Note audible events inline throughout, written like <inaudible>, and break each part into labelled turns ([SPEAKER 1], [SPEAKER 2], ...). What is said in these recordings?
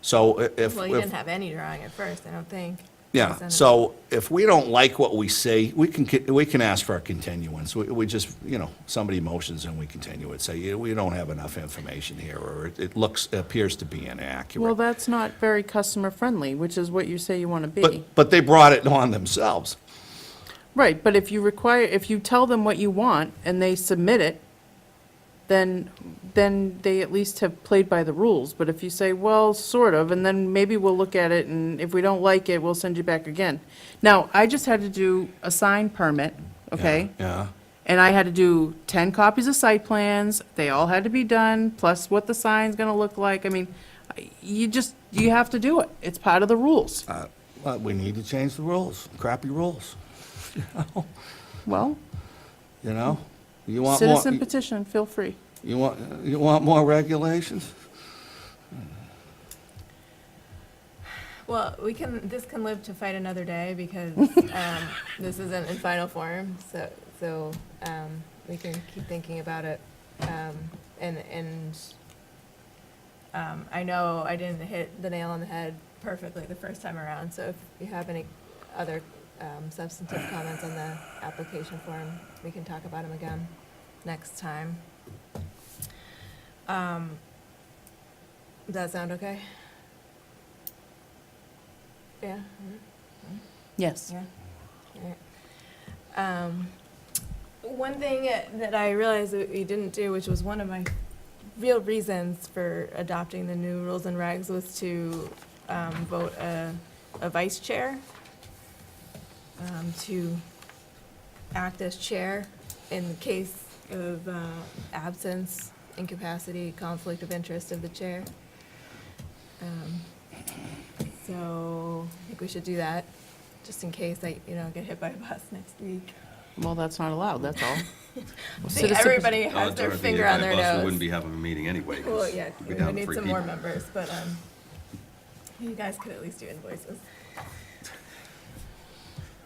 [SPEAKER 1] So i- if.
[SPEAKER 2] Well, you
[SPEAKER 1] if-
[SPEAKER 2] didn't have any drawing at first, I don't think. Because
[SPEAKER 1] Yeah,
[SPEAKER 2] then-
[SPEAKER 1] so if we don't like what we see, we can, ki- we can ask for a continuance. We, we just, you know, somebody motions and we continue it, say, "Yeah, we don't have enough information here, or it- it looks, appears to be
[SPEAKER 3] Well,
[SPEAKER 1] inaccurate.
[SPEAKER 3] that's not very customer-friendly, which is what you say you want to be.
[SPEAKER 1] But, but they brought it on themselves.
[SPEAKER 3] Right, but if you require, if you tell them what you want and they submit it, then, then they at least have played by the rules. But if you say, well, sort of, and then maybe we'll look at it, and if we don't like it, we'll send you back again. Now, I just had to do a sign permit, okay?
[SPEAKER 1] Yeah,
[SPEAKER 3] And I had to do 10 copies of site plans, they all had to be done, plus what the sign's gonna look like. I mean, I- you just, you have to do it, it's part of the rules.
[SPEAKER 1] Uh, But we need to change the rules, crappy rules,
[SPEAKER 3] Well,
[SPEAKER 1] you know? You want more,
[SPEAKER 3] citizen petition, feel free.
[SPEAKER 1] you want, you want more regulations?
[SPEAKER 2] Well, we can, this can live to fight another day because um, this isn't in final form, so, so um, we can keep thinking about it. Um, And, and um, I know I didn't hit the nail on the head perfectly the first time around, so if you have any other um, substantive comments on the application form, we can talk about them again next time. Um, Does that sound okay? Yeah?
[SPEAKER 3] Yes.
[SPEAKER 2] Yeah. Um, One thing that I realized that we didn't do, which was one of my real reasons for adopting the new rules and regs, was to um, vote a, a vice chair um, to act as chair in the case of uh, absence, incapacity, conflict of interest of the chair. Um, So I think we should do that just in case I, you know, get hit by a bus next week.
[SPEAKER 3] Well, that's not allowed, that's all.
[SPEAKER 2] I think
[SPEAKER 3] Citizen-
[SPEAKER 2] everybody
[SPEAKER 4] Uh,
[SPEAKER 2] has their
[SPEAKER 4] Dorothy,
[SPEAKER 2] finger
[SPEAKER 4] if
[SPEAKER 2] on
[SPEAKER 4] I
[SPEAKER 2] their
[SPEAKER 4] bust, We
[SPEAKER 2] nose.
[SPEAKER 4] wouldn't be having a meeting anyway. 'cause
[SPEAKER 2] Well, yeah,
[SPEAKER 4] we'd be
[SPEAKER 2] we
[SPEAKER 4] down
[SPEAKER 2] would need
[SPEAKER 4] three
[SPEAKER 2] some more
[SPEAKER 4] people.
[SPEAKER 2] members, but, um, you guys could at least do invoices.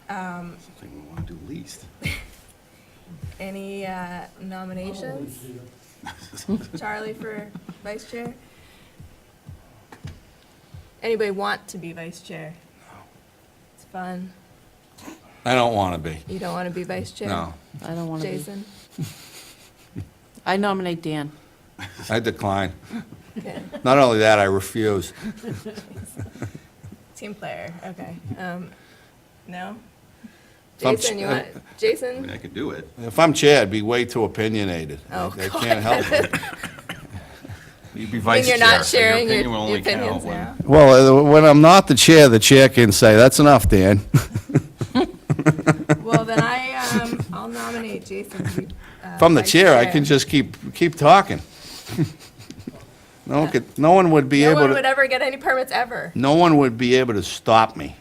[SPEAKER 2] Um,
[SPEAKER 4] Something we want to do least.
[SPEAKER 2] any uh,
[SPEAKER 4] <laughs>
[SPEAKER 2] nominations? Charlie for vice chair? Anybody want to be vice chair? It's fun.
[SPEAKER 1] I don't want to be,
[SPEAKER 2] You don't want to be vice chair?
[SPEAKER 1] no.
[SPEAKER 3] I don't want to be.
[SPEAKER 2] Jason?
[SPEAKER 3] I nominate Dan.
[SPEAKER 1] I decline.
[SPEAKER 2] Okay.
[SPEAKER 1] Not only that, I refuse.
[SPEAKER 2] Team player, okay. Um, no?
[SPEAKER 1] If I'm uh,
[SPEAKER 2] Jason, you
[SPEAKER 1] ch-
[SPEAKER 2] want,
[SPEAKER 4] I mean,
[SPEAKER 2] Jason?
[SPEAKER 4] I could do it.
[SPEAKER 1] If I'm chair, I'd be way too opinionated. I
[SPEAKER 2] Oh,
[SPEAKER 1] I can't help it.
[SPEAKER 2] <laughs>
[SPEAKER 4] You'd be
[SPEAKER 2] When
[SPEAKER 4] vice
[SPEAKER 2] you're
[SPEAKER 4] chair.
[SPEAKER 2] not
[SPEAKER 4] so your
[SPEAKER 2] sharing your
[SPEAKER 4] opinion will
[SPEAKER 2] your
[SPEAKER 4] only count
[SPEAKER 2] opinions
[SPEAKER 4] when-
[SPEAKER 2] now.
[SPEAKER 1] Well, uh, when I'm not the chair, the chair can say, that's enough, Dan.
[SPEAKER 2] <laughs> Well, then I, um, I'll nominate
[SPEAKER 1] <laughs>
[SPEAKER 2] Jason to be. uh,
[SPEAKER 1] From the
[SPEAKER 2] vice
[SPEAKER 1] chair, I can just keep, keep talking. <laughs> No one could, no one would be
[SPEAKER 2] No
[SPEAKER 1] able
[SPEAKER 2] one would
[SPEAKER 1] to,
[SPEAKER 2] ever get any permits ever.
[SPEAKER 1] no one would be able to stop me,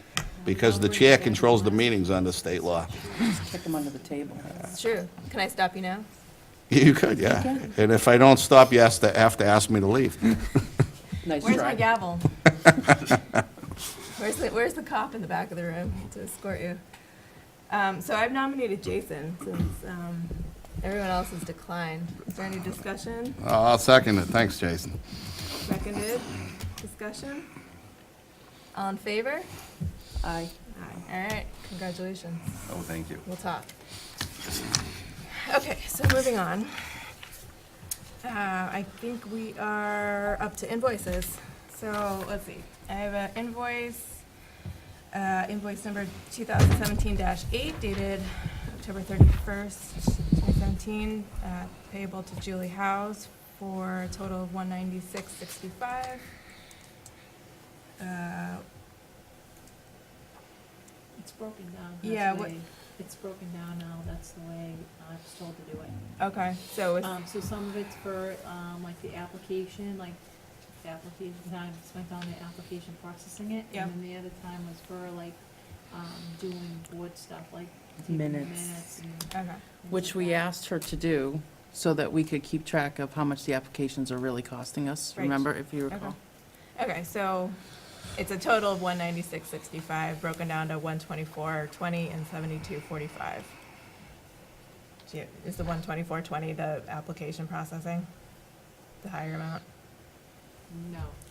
[SPEAKER 1] because the chair controls the meetings under state law. <laughs>
[SPEAKER 3] Kick him under the table.
[SPEAKER 2] It's true. Can I stop you now?
[SPEAKER 1] You could, yeah. And if I don't stop, you have to, have to ask me to leave.
[SPEAKER 3] Nice
[SPEAKER 2] Where's my
[SPEAKER 3] try. <laughs>
[SPEAKER 2] gavel? Where's the, where's the cop in the back of the room to escort you? Um, so I've nominated Jason since, um, everyone else has declined. Is there any discussion?
[SPEAKER 1] I'll second it, thanks, Jason.
[SPEAKER 2] Seconded? Discussion? All in favor?
[SPEAKER 3] Aye.
[SPEAKER 2] All right, congratulations.
[SPEAKER 4] Oh, thank you.
[SPEAKER 2] We'll talk. Okay, so moving on. Uh, I think we are up to invoices. So let's see, I have an invoice, uh, invoice number 2017-8 dated October 31st, 2017, uh, payable to Julie House for a total of 196.65. Uh,
[SPEAKER 5] It's broken down,
[SPEAKER 2] Yeah,
[SPEAKER 5] that's the
[SPEAKER 2] what-
[SPEAKER 5] way, it's broken down now, that's the way I was told to do it.
[SPEAKER 2] Okay, so it's
[SPEAKER 5] Um, so some of it's for, um, like the application, like the application time spent on the application processing it.
[SPEAKER 2] Yeah.
[SPEAKER 5] And then the other time was for like, um, doing board stuff, like taking
[SPEAKER 3] Minutes.
[SPEAKER 5] minutes and things
[SPEAKER 2] Okay.
[SPEAKER 3] Which
[SPEAKER 5] like
[SPEAKER 3] we
[SPEAKER 5] that.
[SPEAKER 3] asked her to do so that we could keep track of how much the applications are really costing us,
[SPEAKER 2] Right.
[SPEAKER 3] remember, if you
[SPEAKER 2] Okay.
[SPEAKER 3] recall.
[SPEAKER 2] Okay, so it's a total of one ninety-six sixty-five, broken down to one twenty-four twenty and seventy-two forty-five. Is the one twenty-four twenty the application processing? The higher amount?
[SPEAKER 5] No,